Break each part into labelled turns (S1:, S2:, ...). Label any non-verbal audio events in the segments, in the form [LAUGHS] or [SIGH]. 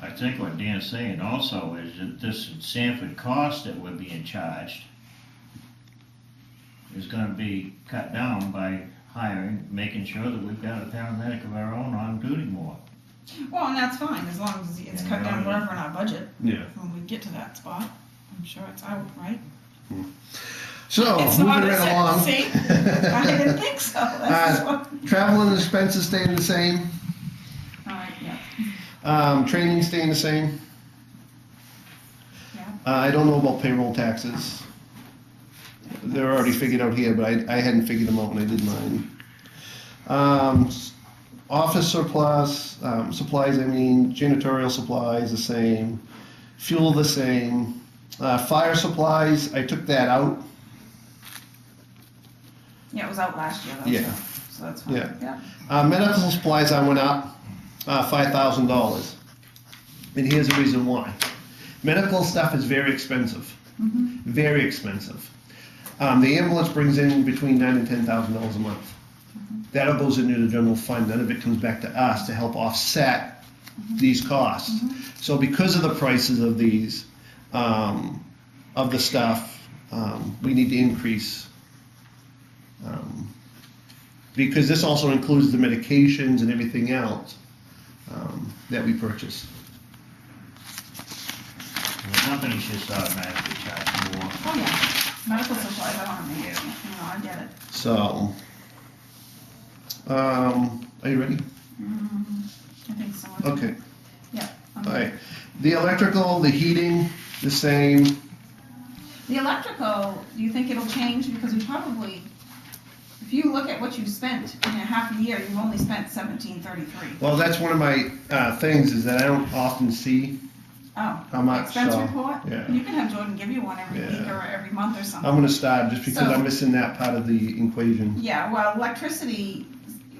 S1: I think what Dan's saying also is that this Sanford cost that we're being charged is gonna be cut down by hiring, making sure that we've got a paramedic of our own on duty more.
S2: Well, and that's fine, as long as it's cut down wherever in our budget,
S3: Yeah.
S2: when we get to that spot, I'm sure it's out, right?
S3: So
S2: It's
S3: Oh, moving
S2: not a
S3: right
S2: set- [LAUGHS]
S3: along.
S2: see? I didn't think so, that's
S3: Uh,
S2: what,
S3: [LAUGHS] Travel and expenses staying the same.
S2: alright, yeah,
S3: Um, training staying the same.
S2: yeah.
S3: Uh, I don't know about payroll taxes. They're already figured out here, but I, I hadn't figured them out when I did mine. Um, s- office surplus, um, supplies, I mean, janitorial supplies, the same. Fuel, the same. Uh, fire supplies, I took that out.
S2: Yeah, it was out last year, though.
S3: Yeah.
S2: So that's fine.
S3: Yeah.
S2: Yeah.
S3: Uh, medical supplies, I went up uh, $5,000. And here's the reason why. Medical stuff is very expensive.
S2: Mhm.
S3: Very expensive. Um, the ambulance brings in between nine and ten thousand dollars a month. That all goes into the general fund. None of it comes back to us to help offset these costs. So because of the prices of these, um, of the stuff, um, we need to increase. Um, because this also includes the medications and everything else um, that we purchase.
S1: The company should start automatically charging more.
S2: Oh, yeah. Medical supplies, I don't have any, you know, I get it.
S3: So, um, are you ready?
S2: Mm, I think Um, someone.
S3: Okay.
S2: Yeah. I'm-
S3: All right. The electrical, the heating, the same.
S2: The electrical, do you think it'll change? Because we probably, if you look at what you spent in a half a year, you've only spent seventeen thirty-three.
S3: Well, that's one of my uh, things is that I don't often see
S2: Oh.
S3: how much.
S2: Expense
S3: So
S2: report?
S3: yeah.
S2: You can have Jordan give you one every week
S3: Yeah.
S2: or every month or
S3: I'm
S2: something.
S3: gonna stop just because
S2: So-
S3: I'm missing that part of the equation.
S2: Yeah, well, electricity,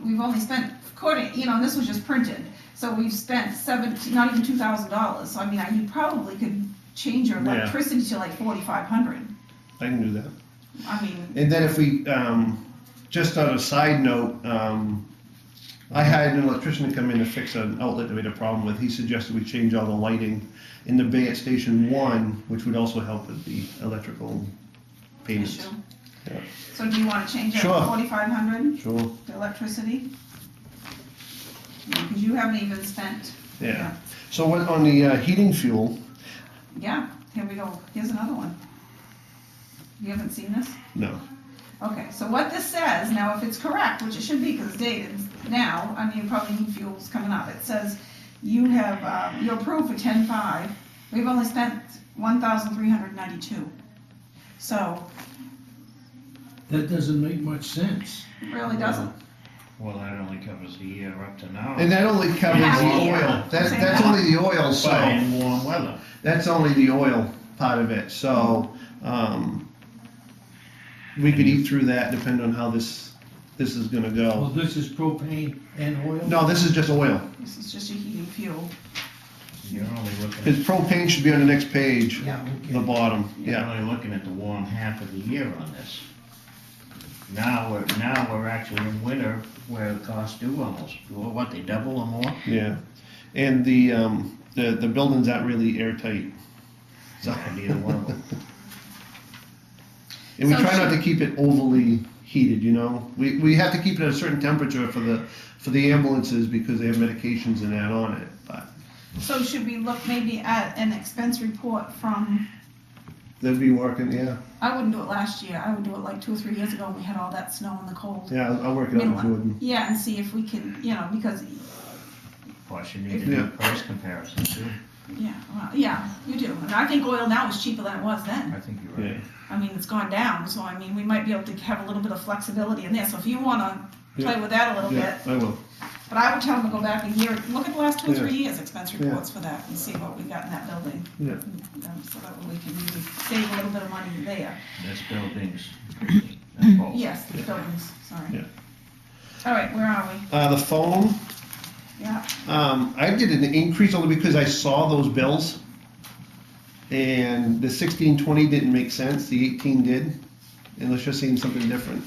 S2: we've only spent, according, you know, and this was just printed, so we've spent seventeen, not even two thousand dollars, so I mean, I- you probably could change your
S3: Yeah.
S2: electricity to like forty-five hundred.
S3: I can do that.
S2: I mean,
S3: And then if we, um, just on a side note, um, I had an electrician to come in to fix an outlet that we had a problem with. He suggested we change all the lighting in the bay at Station One, which would also help with the electrical payments.
S2: issue.
S3: Yeah.
S2: So do you wanna change it
S3: Sure.
S2: to forty-five hundred?
S3: Sure,
S2: The electricity? Because you haven't even spent,
S3: yeah. So what, on the, uh, heating fuel,
S2: yeah, here we go, here's another one. You haven't seen this?
S3: no,
S2: Okay, so what this says, now if it's correct, which it should be because it's dated now, I mean, probably new fuel's coming up, it says you have, uh, you're approved for ten-five, we've only spent one thousand three hundred ninety-two. So,
S4: That doesn't make much sense.
S2: it really doesn't,
S1: Well, that only covers a year up to
S3: and
S1: now,
S3: that only covers
S2: Yeah,
S3: the
S2: yeah.
S3: oil, that's,
S2: Same
S3: that's
S2: amount.
S3: only the oil, so.
S1: but in warm weather.
S3: That's only the oil part of it, so, um, we could eat through that depending on how this, this is gonna go.
S4: Well, this is propane and oil?
S3: No, this is just oil,
S2: this is just a heating fuel.
S1: You're only looking,
S3: because propane should be on the next page,
S4: Yeah,
S3: the
S4: okay.
S3: bottom,
S1: you're
S3: yeah.
S1: only looking at the warm half of the year on this. Now we're, now we're actually in winter where the costs do almost, well, what, they double or more?
S3: Yeah, and the, um, the, the building's not really airtight.
S1: So neither one of them.
S3: And we
S2: So
S3: try not
S2: should-
S3: to keep it overly heated, you know? We, we have to keep it at a certain temperature for the, for the ambulances because they have medications and that on it, but
S2: So should we look maybe at an expense report from,
S3: they'd be working, yeah.
S2: I wouldn't do it last year, I would do it like two or three years ago when we had all that snow and the cold.
S3: Yeah, I'll, I'll work it out with
S2: Midland.
S3: Jordan.
S2: Yeah, and see if we can, you know, because,
S1: Of course, you need to do
S3: Yeah.
S1: price comparison too.
S2: yeah, well, yeah, you do. And I think oil now is cheaper than it was then.
S1: I think you're
S3: Yeah.
S1: right.
S2: I mean, it's gone down, so I mean, we might be able to have a little bit of flexibility in there. So if you wanna play
S3: Yeah.
S2: with that a little bit,
S3: Yeah, I will.
S2: but I would tell them to go back a year, look at the last two, or
S3: Yeah.
S2: three years expense
S3: Yeah.
S2: reports for that and see what we got in that building.
S3: Yeah.
S2: Um, So that way we can maybe save a little bit of money there.
S1: That's buildings. That's both.
S2: Yes, the buildings, sorry.
S3: Yeah.
S2: All right, where are we?
S3: Uh, the phone,
S2: Yeah,
S3: um, I did an increase only because I saw those bills. And the sixteen twenty didn't make sense, the eighteen did, and let's just see something different.